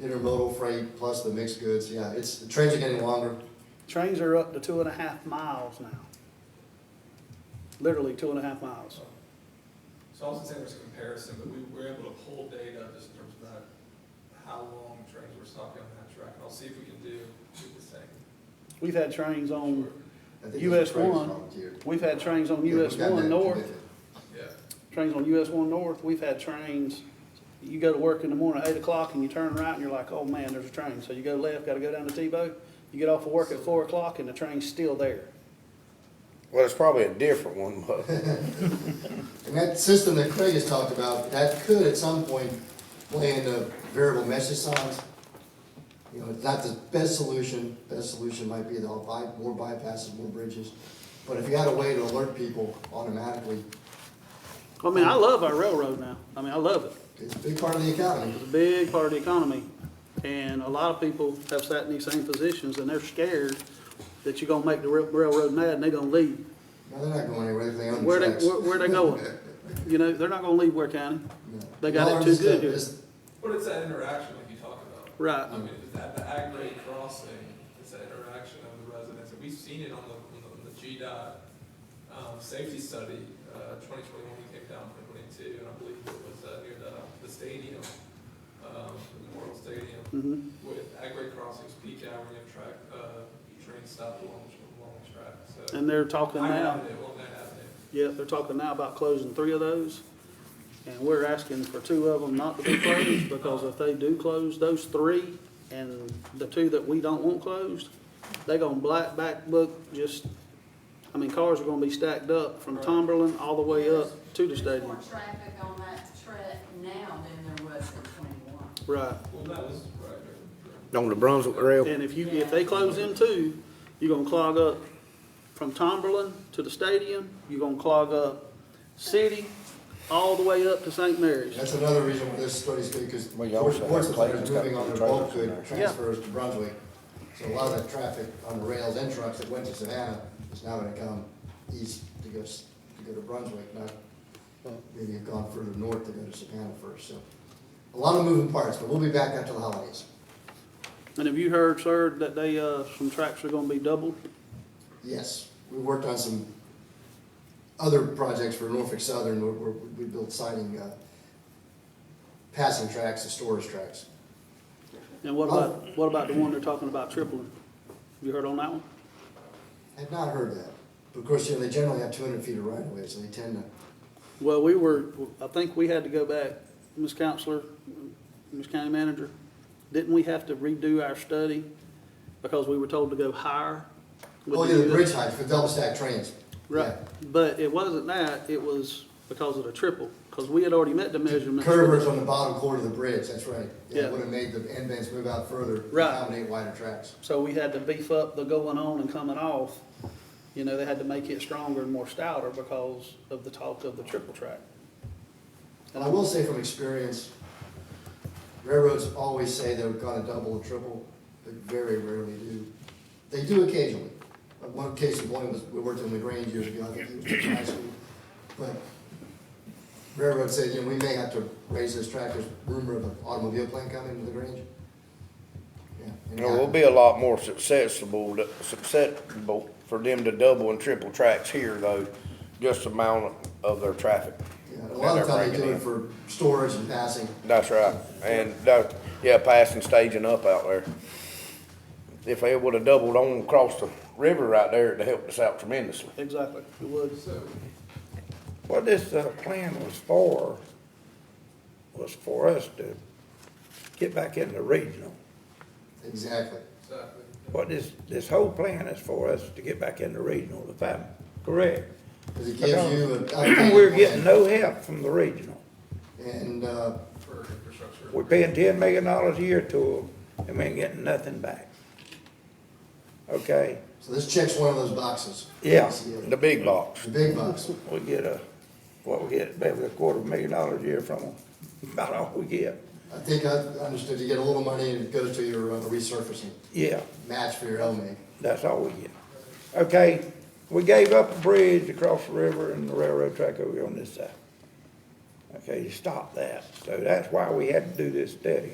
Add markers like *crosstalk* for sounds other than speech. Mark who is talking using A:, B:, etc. A: intermodal freight plus the mixed goods, yeah, it's, the trains are getting longer.
B: Trains are up to two and a half miles now. Literally two and a half miles.
C: So I wasn't saying there's a comparison, but we were able to pull data just in terms of that, how long trains were stopping on that track. And I'll see if we can do, do the same.
B: We've had trains on,
A: I think there's
B: US
A: a trains
B: one.
A: volunteer.
B: we've had trains on
A: Yeah, we've
B: US
A: got
B: one
A: that
B: north,
A: committed.
C: Yeah.
B: trains on US one north, we've had trains. You go to work in the morning at eight o'clock and you turn right and you're like, oh man, there's a train. So you go left, gotta go down to Tebow. You get off of work at four o'clock and the train's still there.
D: Well, it's probably a different one, *laughs* but
A: And that system that Craig has talked about, that could at some point play into variable message signs. You know, it's not the best solution, best solution might be the buy, more bypasses, more bridges. But if you had a way to alert people automatically,
B: I mean, I love our railroad now. I mean, I love it.
A: it's a big part of the economy.
B: It's a big part of the economy, and a lot of people have sat in these same positions, and they're scared that you're gonna make the rail- railroad mad, and they're gonna leave.
A: No, they're not going anywhere, they're on the
B: Where
A: tracks.
B: they, where where they going? You know, they're not gonna leave Ware County.
A: No.
B: They got
A: No,
B: it
A: I'm
B: too
A: just-
B: good, dude.
A: just-
C: But it's that interaction like you talk about.
B: Right.
C: I mean, it's that, the ag grade crossing, it's that interaction of the residents. And we've seen it on the, on the, on the GDOT, um, safety study, uh, twenty twenty-one, we came down from twenty-two, and I believe it was, uh, near the, the stadium, um, the Memorial Stadium.
B: Mhm.
C: with Agway Crossings, Peak Avenue track, uh, train stop along, along the track, so.
B: And they're talking
C: High
B: now,
C: Avenue, along that avenue.
B: yeah, they're talking now about closing three of those, and we're asking for two of them not to be closed, because if they do close those three, and the two that we don't want closed, they gonna black back book just, I mean, cars are gonna be stacked up from Tomberlin all the way up to the
E: There's
B: stadium.
E: More traffic on that track now than there was in twenty-one.
B: Right,
C: Well, that was right there.
D: on the Brunswick Rail,
B: and if you, if they close them too, you're gonna clog up from Tomberlin to the stadium, you're gonna clog up city, all the way up to St. Mary's.
A: That's another reason why this study's good, because
D: Well, you also have
A: ports of
D: places that
A: moving
D: put
A: on their
D: trailers
A: bulk
D: in
A: good
D: there.
A: transfers to Brunswick. So a lot of that traffic on the rails and trucks that went to Savannah is now gonna come east to go, s- to go to Brunswick, not maybe have gone further north to go to Savannah first, so. A lot of moving parts, but we'll be back after the holidays.
B: And have you heard, sir, that they, uh, some tracks are gonna be doubled?
A: Yes, we worked on some other projects for Norfolk Southern, where, where we built siding, uh, passing tracks and storage tracks.
B: And what about, what about the one they're talking about tripling? You heard on that one?
A: I've not heard that. But of course, you know, they generally have two hundred feet of right of way, so they tend to,
B: Well, we were, I think we had to go back, Ms. Counselor, Ms. County Manager, didn't we have to redo our study because we were told to go higher? with
A: oh, yeah, the
B: new-
A: bridge heights for double stack trains.
B: Right, but it wasn't that, it was because of the triple, because we had already met the measurements.
A: Curvers on the bottom quarter of the bridge, that's right. Yeah,
B: Yeah.
A: would have made the end bands move out further. to
B: Right.
A: Accommodate wider tracks.
B: So we had to beef up the going on and coming off. You know, they had to make it stronger and more stouter because of the talk of the triple track.
A: And I will say from experience, railroads always say they're gonna double or triple, but very rarely do. They do occasionally. Uh, One case in point was, we worked in LaGrange years ago, I think it was in high school. But railroad said, you know, we may have to raise this track, there's rumor of an automobile plant coming to LaGrange. Yeah, and
D: you know, we'll be a lot more successful, successful for them to double and triple tracks here though, just the amount of their traffic.
A: yeah, A lot of
D: that they're
A: times they do
D: bringing
A: it for storage and passing.
D: That's right, and that, yeah, passing, staging up out there. If they would've doubled on across the river right there, it'd helped us out tremendously.
B: Exactly, it would.
C: So,
D: What this, uh, plan was for, was for us to get back into regional.
A: Exactly.
C: exactly.
D: What this, this whole plan is for us to get back into regional, if I'm correct.
A: Because it gives you an updated
D: *clears throat* We're getting
A: plan.
D: no help from the regional.
A: And, uh,
C: for infrastructure.
D: We're paying ten million dollars a year to them, and we ain't getting nothing back. Okay?
A: so this checks one of those boxes.
D: Yeah,
A: It's, uh,
D: the big box.
A: The big box.
D: We get a, what we get, maybe a quarter million dollars a year from them, about all we get.
A: I think I understood, you get a little money and it goes to your uh, resurfacing,
D: Yeah,
A: match for your L-MIG.
D: That's all we get. Okay, we gave up a bridge across the river and the railroad track over here on this side. Okay, you stop that. So that's why we had to do this study.